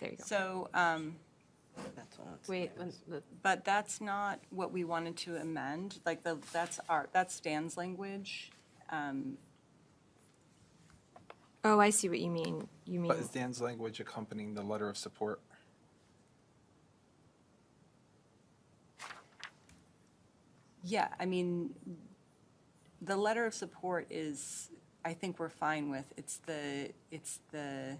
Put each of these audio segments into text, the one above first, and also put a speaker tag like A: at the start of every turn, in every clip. A: There you go.
B: So, um,
C: That's all it's-
A: Wait, when the-
B: but that's not what we wanted to amend, like, the that's our, that's Dan's language.
A: oh, I see what you mean. You mean,
D: But is Dan's language accompanying the letter of support?
B: Yeah, I mean, the letter of support is, I think we're fine with, it's the, it's the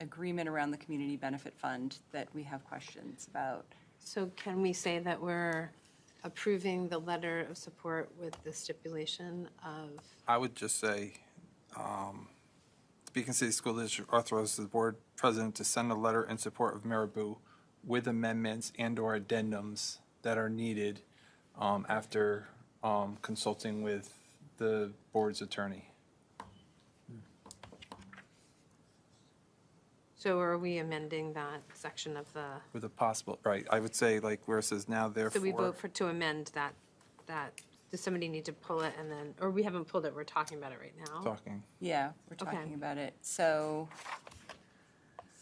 B: agreement around the community benefit fund that we have questions about.
E: So can we say that we're approving the letter of support with the stipulation of,
D: I would just say, um, the Beacon City School District authorizes the board president to send a letter in support of Marabou with amendments and/or addendums that are needed um, after um, consulting with the board's attorney.
E: so are we amending that section of the,
D: With a possible, right, I would say like where it says now
E: so we
D: therefore,
E: vote for, to amend that, that, does somebody need to pull it and then, or we haven't pulled it, we're talking about it right now?
D: talking.
B: Yeah, we're
E: Okay.
B: talking about it. So,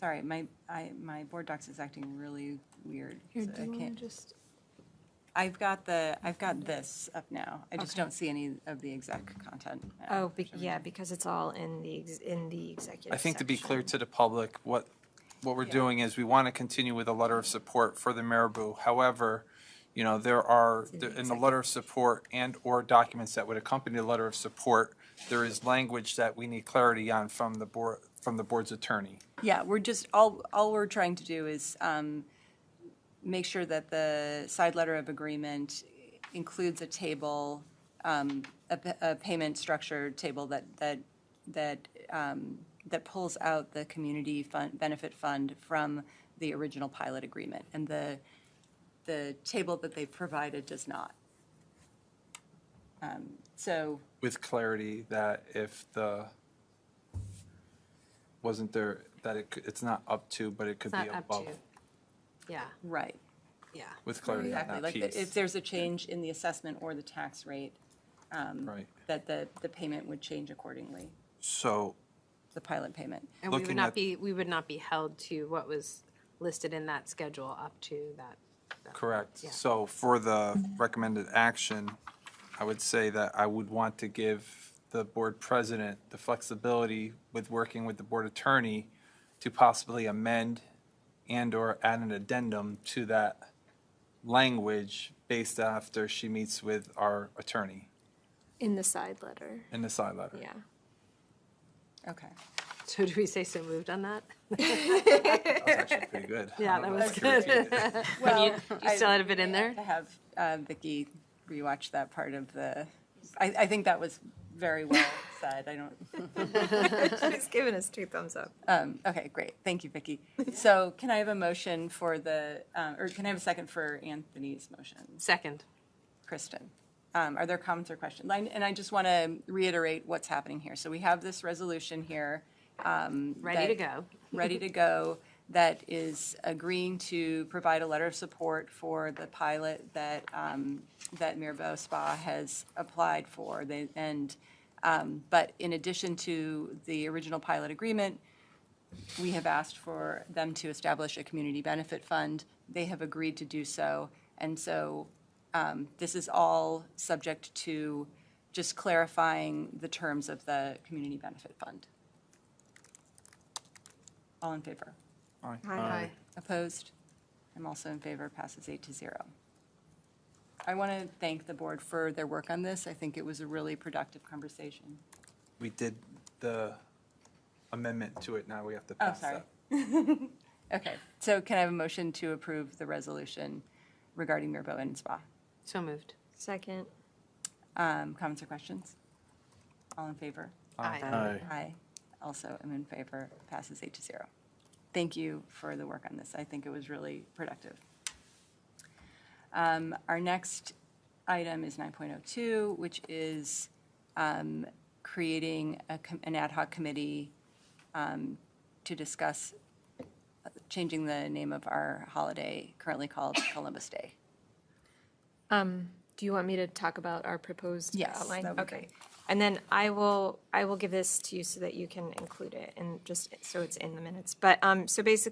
B: sorry, my, I, my board docs is acting really weird.
A: here,
B: so
A: do
B: I
A: you want
B: can't-
A: to just,
B: I've got the, I've got this up now. I just
A: Okay.
B: don't see any of the exec content. now.
A: oh, be- yeah, because it's all in the, ex- in the executive
D: I think to be clear
A: section.
D: to the public, what, what we're doing is we want to continue with a letter of support for the Marabou. However, you know, there are,
A: in the
D: in the letter of support and/or documents that would accompany the letter of support, there is language that we need clarity on from the board, from the board's attorney.
B: Yeah, we're just, all, all we're trying to do is um, make sure that the side letter of agreement includes a table, um, a, p- a payment structure table that, that, that, um, that pulls out the community fund, benefit fund from the original pilot agreement. And the, the table that they provided does not. Um, So,
D: with clarity that if the, wasn't there, that it, c- it's not up to, but it could
E: It's
D: be
E: not up to,
D: above.
E: yeah,
B: right.
E: yeah.
D: With clarity on
B: Exactly,
D: that
B: like the- if
D: piece,
B: there's a change in the assessment or the tax rate,
D: right?
B: that the, the payment would change accordingly,
D: So
B: the pilot payment.
E: And we would
D: Looking
E: not
D: at-
E: be, we would not be held to what was listed in that schedule up to that. that-
D: Correct.
E: Yeah.
D: So for the recommended action, I would say that I would want to give the board president the flexibility with working with the board attorney to possibly amend and/or add an addendum to that language based after she meets with our attorney
A: In the side letter,
D: in the side letter.
A: yeah.
B: Okay.
E: So do we say so moved on that?
D: That was actually pretty good.
E: Yeah,
D: I don't know
E: that was
D: if I should repeat it.
B: Well,
E: You still had a bit in there?
B: To have uh, Vicky rewatch that part of the, I, I think that was very well said. I don't,
A: She's giving us two thumbs up.
B: um, okay, great. Thank you, Vicky. So can I have a motion for the, um, or can I have a second for Anthony's motion?
E: Second.
B: Kristen. Um, Are there comments or questions? I- And I just want to reiterate what's happening here. So we have this resolution here. um,
E: Ready to
B: that-
E: go.
B: Ready to go, that is agreeing to provide a letter of support for the pilot that, um, that Mirabeau Spa has applied for. They- And, um, but in addition to the original pilot agreement, we have asked for them to establish a community benefit fund. They have agreed to do so. And so um, this is all subject to just clarifying the terms of the community benefit fund. All in favor?
D: All right.
A: Hi.
B: Opposed? I'm also in favor, passes eight to zero. I want to thank the board for their work on this. I think it was a really productive conversation.
D: We did the amendment to it, now we have to
B: Oh,
D: pass
B: sorry.
D: that.
B: Okay, so can I have a motion to approve the resolution regarding Mirbeau and Spa?
E: So moved.
A: Second,
B: Um, Comments or questions? All in favor?
E: Aye.
B: Aye. Also am in favor, passes eight to zero. Thank you for the work on this. I think it was really productive. Um, Our next item is 9.02, which is um, creating a com- an ad hoc committee um, to discuss uh, changing the name of our holiday currently called Columbus Day.
A: do you want me to talk about our proposed
B: Yes,
A: outline?
B: that would be
A: Okay.
B: great.
A: And then I will, I will give this to you so that you can include it and just, so it's in the minutes. But, um, so basically